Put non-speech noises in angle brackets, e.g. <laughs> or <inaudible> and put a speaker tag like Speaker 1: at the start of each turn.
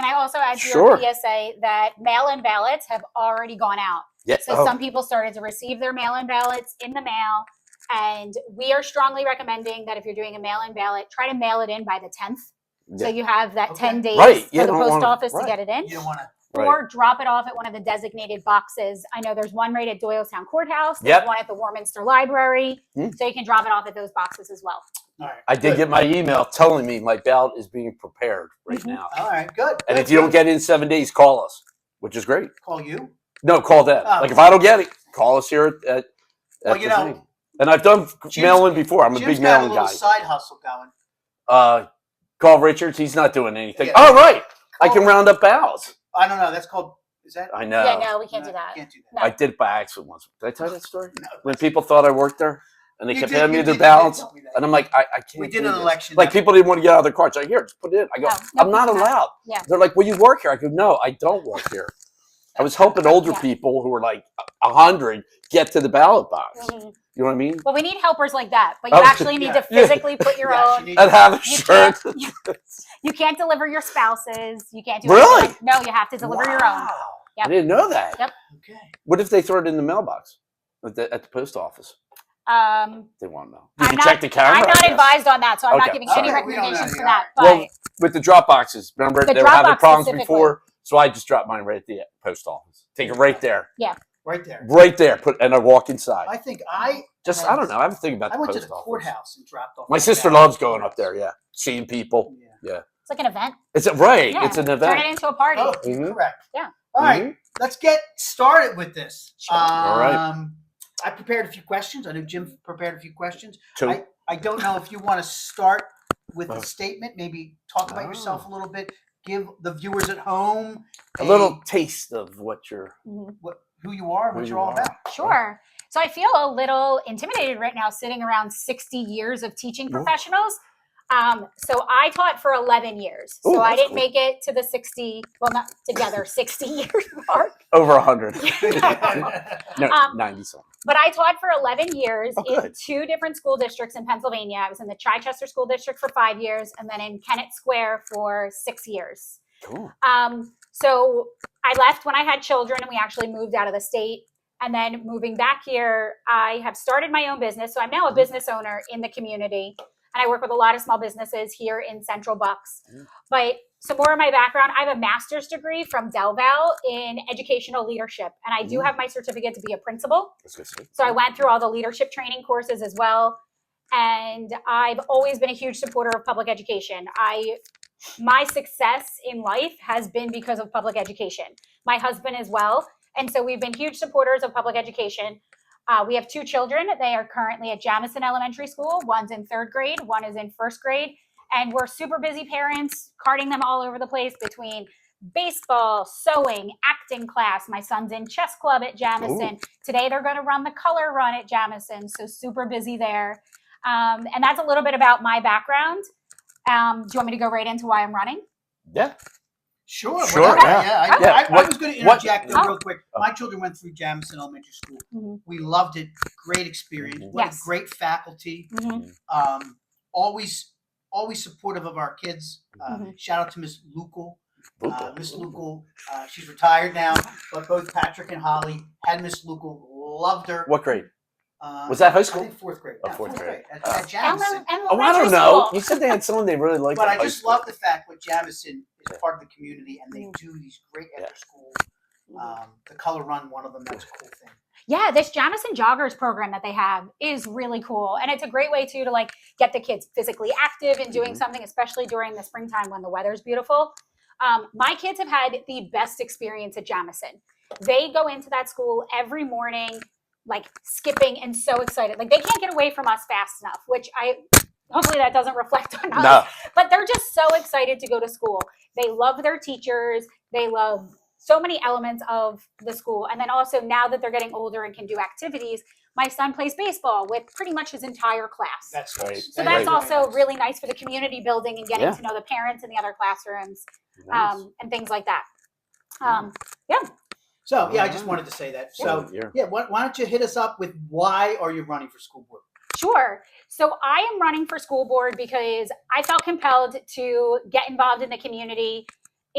Speaker 1: I also add to your
Speaker 2: Sure.
Speaker 1: PSA that mail-in ballots have already gone out.
Speaker 2: Yeah. oh,
Speaker 1: So some people started to receive their mail-in ballots in the mail. And we are strongly recommending that if you're doing a mail-in ballot, try to mail it in by the 10th. So
Speaker 2: Yeah.
Speaker 1: you have that
Speaker 3: Okay.
Speaker 1: 10 days
Speaker 2: Right, you
Speaker 1: for the
Speaker 2: don't
Speaker 1: post
Speaker 2: wanna-
Speaker 1: office
Speaker 2: right.
Speaker 1: to get it in.
Speaker 3: You don't want to.
Speaker 2: Right.
Speaker 1: Or drop it off at one of the designated boxes. I know there's one right at Doylestown Courthouse. There's
Speaker 2: Yep.
Speaker 1: one at the Warminster Library.
Speaker 2: Hmm.
Speaker 1: So you can drop it off at those boxes as well.
Speaker 3: All right.
Speaker 2: I did
Speaker 3: good.
Speaker 2: get my email telling me my ballot is being prepared right
Speaker 1: Mhm.
Speaker 2: now.
Speaker 3: All right. Good.
Speaker 2: And
Speaker 3: good,
Speaker 2: if you don't
Speaker 3: Mm-hmm. Oh, good.
Speaker 2: get it in seven days, call us, which is great.
Speaker 3: call you.
Speaker 2: No, call them.
Speaker 3: Oh.
Speaker 2: Like if I don't get it, call us here at. at
Speaker 3: Well,
Speaker 2: at
Speaker 3: you
Speaker 2: the
Speaker 3: know,
Speaker 2: thing. and I've done
Speaker 3: Jim's-
Speaker 2: mail in before. I'm a
Speaker 3: Jim's
Speaker 2: big
Speaker 3: got
Speaker 2: mail
Speaker 3: a
Speaker 2: in
Speaker 3: little
Speaker 2: guy.
Speaker 3: side hustle going.
Speaker 2: Uh, call Richards. He's not doing anything.
Speaker 3: Yeah. Oh.
Speaker 2: All right, I
Speaker 3: Call-
Speaker 2: can round up ballots.
Speaker 3: I don't know. That's called. Is that?
Speaker 2: I know.
Speaker 1: Yeah, no, we can't do that.
Speaker 3: Can't do that.
Speaker 2: I did it by accident once. Did I tell you that story?
Speaker 3: No.
Speaker 2: When people thought I worked there and they
Speaker 3: You
Speaker 2: kept
Speaker 3: did-
Speaker 2: handing
Speaker 3: you
Speaker 2: me their
Speaker 3: did- you did tell
Speaker 2: ballots,
Speaker 3: me
Speaker 2: and
Speaker 3: that.
Speaker 2: I'm like, I, I can't.
Speaker 3: We
Speaker 2: do
Speaker 3: did an
Speaker 2: this.
Speaker 3: election.
Speaker 2: Like
Speaker 3: that-
Speaker 2: people didn't want to get out of their car. It's like, here, just put it in. I go,
Speaker 1: No, no,
Speaker 2: I'm not
Speaker 1: it's not.
Speaker 2: allowed.
Speaker 1: Yeah.
Speaker 2: They're like, well, you work here. I go, no, I don't work here. I was helping older
Speaker 1: Yeah.
Speaker 2: people who were like a hundred get to the ballot box.
Speaker 1: Mhm.
Speaker 2: You know what I mean?
Speaker 1: Well, we need helpers like that, but you
Speaker 2: Oh,
Speaker 1: actually need to
Speaker 2: <laughs> yeah.
Speaker 1: physically put your
Speaker 3: Yeah, she
Speaker 1: own.
Speaker 3: needs-
Speaker 2: And have a
Speaker 1: You
Speaker 2: shirt.
Speaker 1: can't, you, can't deliver your spouses. You can't do
Speaker 2: Really?
Speaker 1: anything. No, you have to deliver your own.
Speaker 2: Wow.
Speaker 1: Yep.
Speaker 2: I didn't know that.
Speaker 1: Yep.
Speaker 3: Okay.
Speaker 2: What if they throw it in the mailbox at the, at the post office?
Speaker 1: Um,
Speaker 2: They want to know.
Speaker 1: I'm
Speaker 2: You can
Speaker 1: not-
Speaker 2: check the
Speaker 1: I'm
Speaker 2: camera. I
Speaker 1: not
Speaker 2: guess.
Speaker 1: advised on that, so I'm
Speaker 2: Okay.
Speaker 1: not giving any
Speaker 3: All right, we don't know
Speaker 1: recommendations for
Speaker 3: the
Speaker 1: that. But
Speaker 2: Well, with the drop boxes. Remember,
Speaker 1: The
Speaker 2: they were
Speaker 1: drop
Speaker 2: having
Speaker 1: box
Speaker 2: problems
Speaker 1: specifically.
Speaker 2: before, so I just dropped mine right at the post office. Take it right there,
Speaker 3: Right there.
Speaker 2: right there. Put and I walk inside.
Speaker 3: I think I.
Speaker 2: just I don't know. I haven't thinking about
Speaker 3: I
Speaker 2: the
Speaker 3: went to
Speaker 2: post
Speaker 3: the
Speaker 2: office.
Speaker 3: courthouse and dropped off.
Speaker 2: My sister
Speaker 3: ballot.
Speaker 2: loves going up there. Yeah, seeing people.
Speaker 3: Yeah.
Speaker 1: it's like an event.
Speaker 2: It's a, right.
Speaker 1: Yeah.
Speaker 2: It's an
Speaker 1: Turn it
Speaker 2: event.
Speaker 1: into a party.
Speaker 3: Oh,
Speaker 2: Mhm.
Speaker 3: correct.
Speaker 1: Yeah.
Speaker 3: All right,
Speaker 2: Mhm.
Speaker 3: let's get started with this.
Speaker 1: Sure.
Speaker 2: All right.
Speaker 3: Um, I prepared a few questions. I know Jim prepared a few questions.
Speaker 2: Two.
Speaker 3: I don't know if you want to start with
Speaker 2: Oh.
Speaker 3: a statement, maybe talk about yourself a little bit, give the viewers at home
Speaker 2: a little taste of what you're.
Speaker 1: Mhm.
Speaker 3: what, who you are,
Speaker 2: Who
Speaker 3: what
Speaker 2: you
Speaker 3: you're all
Speaker 2: are.
Speaker 3: about.
Speaker 1: Sure. So I feel a little intimidated right now, sitting around 60 years of teaching
Speaker 2: Ooh.
Speaker 1: professionals. Um, so I taught for 11 years. So
Speaker 2: Ooh,
Speaker 1: I
Speaker 2: that's
Speaker 1: didn't
Speaker 2: cool.
Speaker 1: make it to the 60, well, not together, <laughs> 60 years mark.
Speaker 2: Over a
Speaker 3: <laughs>
Speaker 2: hundred. <laughs> no,
Speaker 1: Um,
Speaker 2: ninety something.
Speaker 1: But I taught for 11 years
Speaker 2: Oh,
Speaker 1: in
Speaker 2: good.
Speaker 1: two different school districts in Pennsylvania. I was in the Chichester School District for five years and then in Kennett Square for six years.
Speaker 2: Cool.
Speaker 1: Um, so I left when I had children and we actually moved out of the state. And then moving back here, I have started my own business. So I'm now a
Speaker 2: Mm-hmm.
Speaker 1: business owner in the community and I work with a lot of small businesses here in Central Bucks.
Speaker 2: Mm.
Speaker 1: But some more of my background, I have a master's degree from DelVal in educational leadership. And I do
Speaker 2: Mm.
Speaker 1: have my certificate to be a principal.
Speaker 2: That's good. stuff.
Speaker 1: So I went through all the leadership training courses as well. And I've always been a huge supporter of public education. I my success in life has been because of public education. My husband as well. And so we've been huge supporters of public education. Uh, we have two children. They are currently at Jamison Elementary School. One's in third grade, one is in first grade. And we're super busy parents, carting them all over the place between baseball, sewing, acting class. My son's in chess club at Jamison. Today they're going to run the color run at Jamison, so super busy there. Um, and that's a little bit about my background. Um, do you want me to go right into why I'm running?
Speaker 2: Yeah.
Speaker 3: Sure.
Speaker 2: Sure,
Speaker 3: whatever.
Speaker 2: yeah.
Speaker 3: I,
Speaker 2: Yeah,
Speaker 3: I, I
Speaker 2: what-
Speaker 3: was going to
Speaker 2: what-
Speaker 3: interject though,
Speaker 1: Oh.
Speaker 3: real quick.
Speaker 2: Oh.
Speaker 3: My children went through Jamison Elementary School.
Speaker 1: Mhm.
Speaker 3: We loved it. Great experience.
Speaker 2: Mhm.
Speaker 3: What
Speaker 1: Yes.
Speaker 3: a great faculty.
Speaker 1: Mhm.
Speaker 2: Mm-hmm.
Speaker 3: Um, always, always supportive of our kids. Uh,
Speaker 1: Mhm.
Speaker 3: Shout out to Miss Lucal. Uh,
Speaker 2: Boop.
Speaker 3: Miss Lucal, uh, she's retired now, but both Patrick and Holly had Miss Lucal, loved her.
Speaker 2: What grade?
Speaker 3: Uh,
Speaker 2: Was that high
Speaker 3: I
Speaker 2: school?
Speaker 3: think fourth grade.
Speaker 2: Oh,
Speaker 3: Yeah,
Speaker 2: fourth grade.
Speaker 3: At,
Speaker 2: Uh,
Speaker 3: at Jamison.
Speaker 2: Oh, I don't know. You said they had someone they really liked.
Speaker 3: But
Speaker 2: at
Speaker 3: I
Speaker 2: high
Speaker 3: just
Speaker 2: school.
Speaker 3: love the fact that Jamison
Speaker 2: Yeah.
Speaker 3: is part of the community and they
Speaker 1: Mhm.
Speaker 3: do these great
Speaker 2: Yeah.
Speaker 3: after school. Um, the color run, one of them, that's a cool thing.
Speaker 1: Yeah, this Jamison Joggers program that they have is really cool. And it's a great way too to like get the kids physically active and doing
Speaker 2: Mhm.
Speaker 1: something, especially during the springtime when the weather's beautiful. Um, my kids have had the best experience at Jamison. They go into that school every morning, like skipping and so excited. Like they can't get away from us fast enough, which I hopefully that doesn't reflect on us
Speaker 2: No.
Speaker 1: but they're just so excited to go to school. They love their teachers. They love so many elements of the school. And then also now that they're getting older and can do activities, my son plays baseball with pretty much his entire class.
Speaker 3: That's
Speaker 2: Right.
Speaker 3: nice.
Speaker 1: so
Speaker 2: Right.
Speaker 1: that's also really nice for the community building and getting
Speaker 2: Yeah.
Speaker 1: to know the parents in the other classrooms
Speaker 2: Nice.
Speaker 1: um, and things like that. Um,
Speaker 3: So, yeah, I
Speaker 1: Mhm.
Speaker 3: just wanted to say that. So,
Speaker 2: yeah.
Speaker 3: yeah, why, why don't you hit us up with why are you running for school board?
Speaker 1: Sure. So I am running for school board because I felt compelled to get involved in the community